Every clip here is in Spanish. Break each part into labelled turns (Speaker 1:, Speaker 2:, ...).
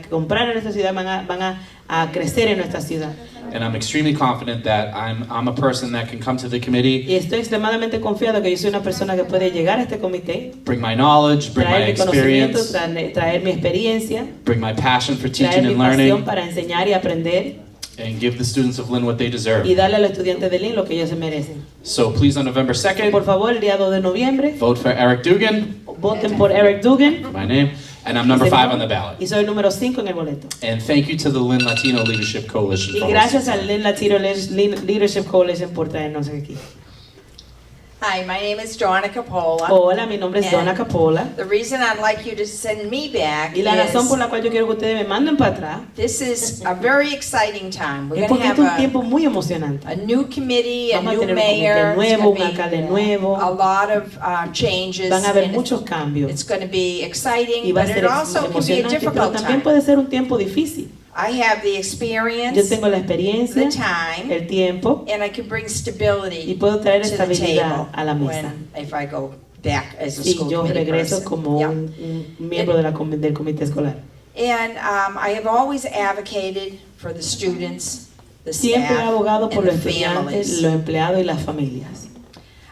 Speaker 1: que comprar en esta ciudad van a, van a, a crecer en nuestra ciudad.
Speaker 2: And I'm extremely confident that I'm, I'm a person that can come to the committee,
Speaker 1: Y estoy extremadamente confiado que yo soy una persona que puede llegar a este comité,
Speaker 2: bring my knowledge, bring my
Speaker 1: traer mi conocimiento,
Speaker 2: experience,
Speaker 1: traer, traer mi experiencia,
Speaker 2: bring my passion for
Speaker 1: traer
Speaker 2: teaching
Speaker 1: mi
Speaker 2: and
Speaker 1: pasión
Speaker 2: learning,
Speaker 1: para enseñar y aprender
Speaker 2: and give the students of Lynn what they deserve.
Speaker 1: y darle a los estudiantes de Lynn lo que ellos se merecen.
Speaker 2: So please, on November
Speaker 1: Por
Speaker 2: 2nd,
Speaker 1: favor, el día 2 de noviembre,
Speaker 2: vote for Eric Dugan,
Speaker 1: voten por Eric Dugan
Speaker 2: my name, and I'm number five on the ballot.
Speaker 1: y soy el número 5 en el boleto.
Speaker 2: And thank you to the Lynn Latino Leadership Coalition.
Speaker 1: Y
Speaker 2: for
Speaker 1: gracias
Speaker 2: hosting.
Speaker 1: al Lynn Latino Lin- Leadership Coalition por traernos aquí.
Speaker 3: Hi, my name is Donna Capola.
Speaker 1: Hola, mi nombre es Donna Capola
Speaker 3: The reason I'd like you to send me back
Speaker 1: y la razón por
Speaker 3: is
Speaker 1: la cual yo quiero que ustedes me manden para atrás
Speaker 3: this is a very exciting time. We're
Speaker 1: es
Speaker 3: going
Speaker 1: porque
Speaker 3: to
Speaker 1: es un
Speaker 3: have a,
Speaker 1: tiempo muy emocionante.
Speaker 3: a new committee, a
Speaker 1: Vamos a
Speaker 3: new
Speaker 1: tener un
Speaker 3: mayor.
Speaker 1: comité
Speaker 3: It's
Speaker 1: nuevo,
Speaker 3: gonna
Speaker 1: un alcalde
Speaker 3: be, uh,
Speaker 1: nuevo.
Speaker 3: A lot of uh, changes.
Speaker 1: Van a haber
Speaker 3: and
Speaker 1: muchos cambios
Speaker 3: It's going to
Speaker 1: y
Speaker 3: be exciting,
Speaker 1: va a
Speaker 3: but
Speaker 1: ser
Speaker 3: it
Speaker 1: ex-
Speaker 3: also can be a
Speaker 1: emocionante, pero
Speaker 3: difficult
Speaker 1: también
Speaker 3: time.
Speaker 1: puede ser un tiempo difícil.
Speaker 3: I have the
Speaker 1: Yo
Speaker 3: experience,
Speaker 1: tengo la
Speaker 3: the
Speaker 1: experiencia,
Speaker 3: time,
Speaker 1: el tiempo
Speaker 3: and I can bring
Speaker 1: y
Speaker 3: stability
Speaker 1: puedo traer
Speaker 3: to the
Speaker 1: estabilidad
Speaker 3: table
Speaker 1: a la mesa.
Speaker 3: when, if I go back as a
Speaker 1: Y
Speaker 3: school
Speaker 1: yo
Speaker 3: committee
Speaker 1: regreso
Speaker 3: person.
Speaker 1: como
Speaker 3: Yeah.
Speaker 1: un, un miembro de la comi- del comité escolar.
Speaker 3: And um, I have always advocated for the students, the
Speaker 1: Siempre he
Speaker 3: staff,
Speaker 1: abogado por
Speaker 3: and
Speaker 1: los
Speaker 3: the
Speaker 1: estudiantes,
Speaker 3: families.
Speaker 1: los empleados y las familias.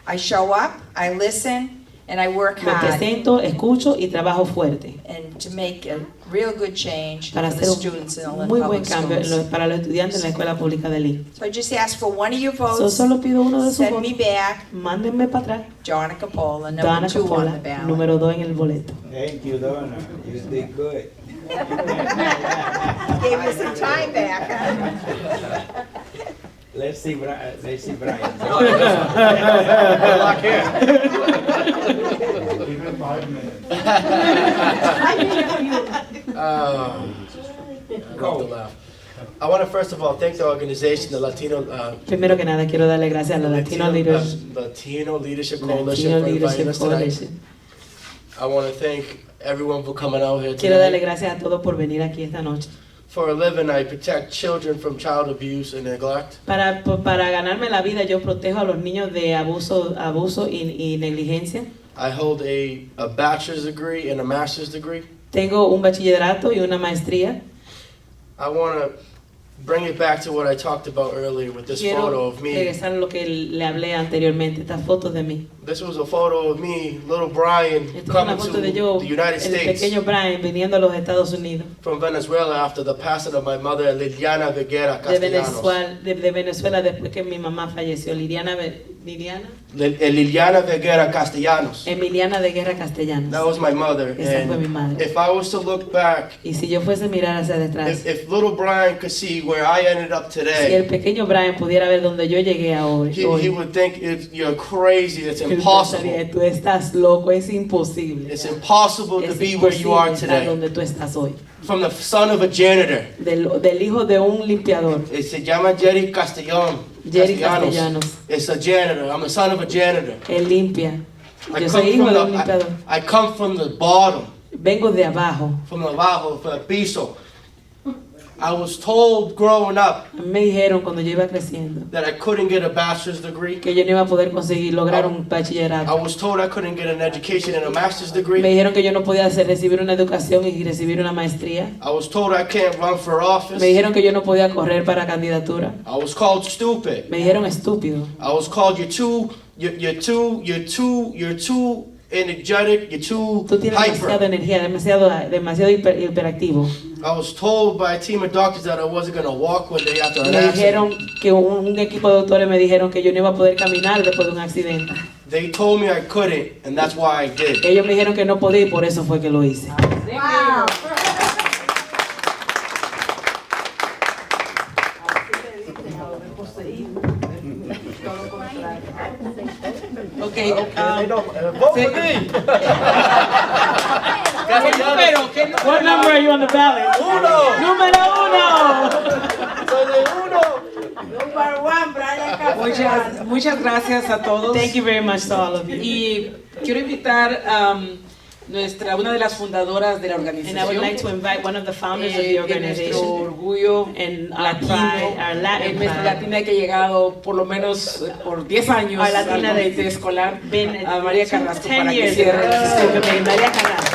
Speaker 3: I show up, I listen, and I work
Speaker 1: Me
Speaker 3: hard
Speaker 1: presento, escucho y trabajo fuerte
Speaker 3: and to make a real good change for
Speaker 1: para
Speaker 3: the
Speaker 1: hacer
Speaker 3: students in the
Speaker 1: un muy
Speaker 3: Lynn
Speaker 1: buen
Speaker 3: Public
Speaker 1: cambio en
Speaker 3: Schools.
Speaker 1: lo- para los estudiantes en la escuela pública de Lee.
Speaker 3: So I just ask for one of your
Speaker 1: So,
Speaker 3: votes.
Speaker 1: solo pido uno de sus
Speaker 3: Send me
Speaker 1: votos.
Speaker 3: back,
Speaker 1: Mándenme para atrás.
Speaker 3: Donna Capola, number
Speaker 1: Donna
Speaker 3: two on the
Speaker 1: Capola,
Speaker 3: ballot.
Speaker 1: número 2 en el boleto.
Speaker 4: Thank you, Donna. You did good.
Speaker 3: Gave me some time back.
Speaker 4: Let's see Brian. Let's see Brian.
Speaker 5: Um, I love to laugh. I want to first of all thank the organization, the Latino, uh,
Speaker 1: Primero que nada, quiero darle gracias a los Latino
Speaker 5: uh,
Speaker 1: Leaders,
Speaker 5: Latino Leadership Coalition
Speaker 1: Latino
Speaker 5: for inviting
Speaker 1: Leadership
Speaker 5: us tonight.
Speaker 1: Coalition.
Speaker 5: I want to thank everyone for coming out here
Speaker 1: Quiero darle
Speaker 5: tonight.
Speaker 1: gracias a todos por venir aquí esta noche.
Speaker 5: For a living, I protect children from child abuse and neglect.
Speaker 1: Para, por- para ganarme la vida, yo protejo a los niños de abuso, abuso y, y negligencia.
Speaker 5: I hold a, a bachelor's degree and a master's degree.
Speaker 1: Tengo un bachillerato y una maestría.
Speaker 5: I want to bring it back to what I talked about earlier with this photo
Speaker 1: Quiero
Speaker 5: of me.
Speaker 1: regresar a lo que le hablé anteriormente, estas fotos de mí.
Speaker 5: This was a photo of me, little Brian,
Speaker 1: Esta es una
Speaker 5: coming to
Speaker 1: foto de yo,
Speaker 5: the United
Speaker 1: el
Speaker 5: States.
Speaker 1: pequeño Brian, viniendo a los Estados Unidos.
Speaker 5: from Venezuela after the passing of my mother Liliana Viguera
Speaker 1: De
Speaker 5: Castellanos.
Speaker 1: Venezuela, de, de Venezuela después que mi mamá falleció, Liliana, Ve- Liliana
Speaker 5: Lil- eh, Liliana Viguera Castellanos.
Speaker 1: Emiliana de Guerra Castellanos.
Speaker 5: That was my mother.
Speaker 1: Eh. Esa fue mi
Speaker 5: And
Speaker 1: madre.
Speaker 5: if I was to look back,
Speaker 1: Y si yo fuese a mirar hacia
Speaker 5: if,
Speaker 1: detrás,
Speaker 5: if little Brian could see where I ended up
Speaker 1: si el
Speaker 5: today,
Speaker 1: pequeño Brian pudiera ver donde yo llegué a hoy,
Speaker 5: he,
Speaker 1: hoy,
Speaker 5: he would think it's, you're crazy. It's
Speaker 1: él
Speaker 5: impossible.
Speaker 1: pensaría, tú estás loco, es imposible.
Speaker 5: It's impossible to
Speaker 1: es
Speaker 5: be where you are
Speaker 1: imposible estar
Speaker 5: today.
Speaker 1: donde tú estás hoy.
Speaker 5: From the son of a janitor,
Speaker 1: Del, del hijo de un limpiador.
Speaker 5: it se llama Jerry Castellón.
Speaker 1: Jerry Castellanos.
Speaker 5: It's a janitor. I'm the son of a janitor.
Speaker 1: Él limpia.
Speaker 5: I
Speaker 1: Yo
Speaker 5: come
Speaker 1: soy hijo
Speaker 5: from
Speaker 1: de un
Speaker 5: the-
Speaker 1: limpiador.
Speaker 5: I- I come from the bottom.
Speaker 1: Vengo de abajo.
Speaker 5: from abajo, from el piso. I was told growing up
Speaker 1: Me dijeron cuando yo iba creciendo
Speaker 5: that I couldn't get a bachelor's degree.
Speaker 1: que yo no iba a poder conseguir lograr un
Speaker 5: I
Speaker 1: bachillerato.
Speaker 5: was told I couldn't get an education and a master's
Speaker 1: Me
Speaker 5: degree.
Speaker 1: dijeron que yo no podía hacer, recibir una educación y recibir una maestría.
Speaker 5: I was told I can't run for office.
Speaker 1: Me dijeron que yo no podía correr para candidatura.
Speaker 5: I was called stupid.
Speaker 1: Me dijeron estúpido.
Speaker 5: I was called you're too, you're, you're too, you're too, you're too energetic, you're too
Speaker 1: Tú tienes demasiada
Speaker 5: hyper.
Speaker 1: energía, demasiado, demasiado hiper- hiperactivo.
Speaker 5: I was told by a team of doctors that I wasn't gonna walk one day after an
Speaker 1: Me dijeron
Speaker 5: accident.
Speaker 1: que un, un equipo de doctores me dijeron que yo no iba a poder caminar después de un accidente.
Speaker 5: They told me I couldn't, and that's why I did.
Speaker 1: Ellos me dijeron que no podía y por eso fue que lo hice.
Speaker 3: Wow.
Speaker 1: Ok, ah,
Speaker 5: Castellanos.
Speaker 1: What number are you on the ballot?
Speaker 5: Uno.
Speaker 1: Número uno.
Speaker 5: Soy de uno.
Speaker 6: Muchas, muchas gracias a todos.
Speaker 1: Thank you very much to all of you.
Speaker 6: Y quiero invitar a nuestra, una de las fundadoras de la organización.
Speaker 1: And I would like to invite one of the founders of
Speaker 6: eh, de
Speaker 1: the
Speaker 6: nuestro
Speaker 1: organization
Speaker 6: orgullo
Speaker 1: and our
Speaker 6: latino,
Speaker 1: pride, our
Speaker 6: eh,
Speaker 1: Latin
Speaker 6: nuestra
Speaker 1: pride,
Speaker 6: latina que ha llegado por lo menos eh, por 10 años
Speaker 1: Our latina
Speaker 6: al
Speaker 1: de-
Speaker 6: comité escolar,
Speaker 1: been
Speaker 6: a María Carrasco,
Speaker 1: 10
Speaker 6: para que
Speaker 1: years.
Speaker 6: cierre.
Speaker 1: ago. María Carrasco.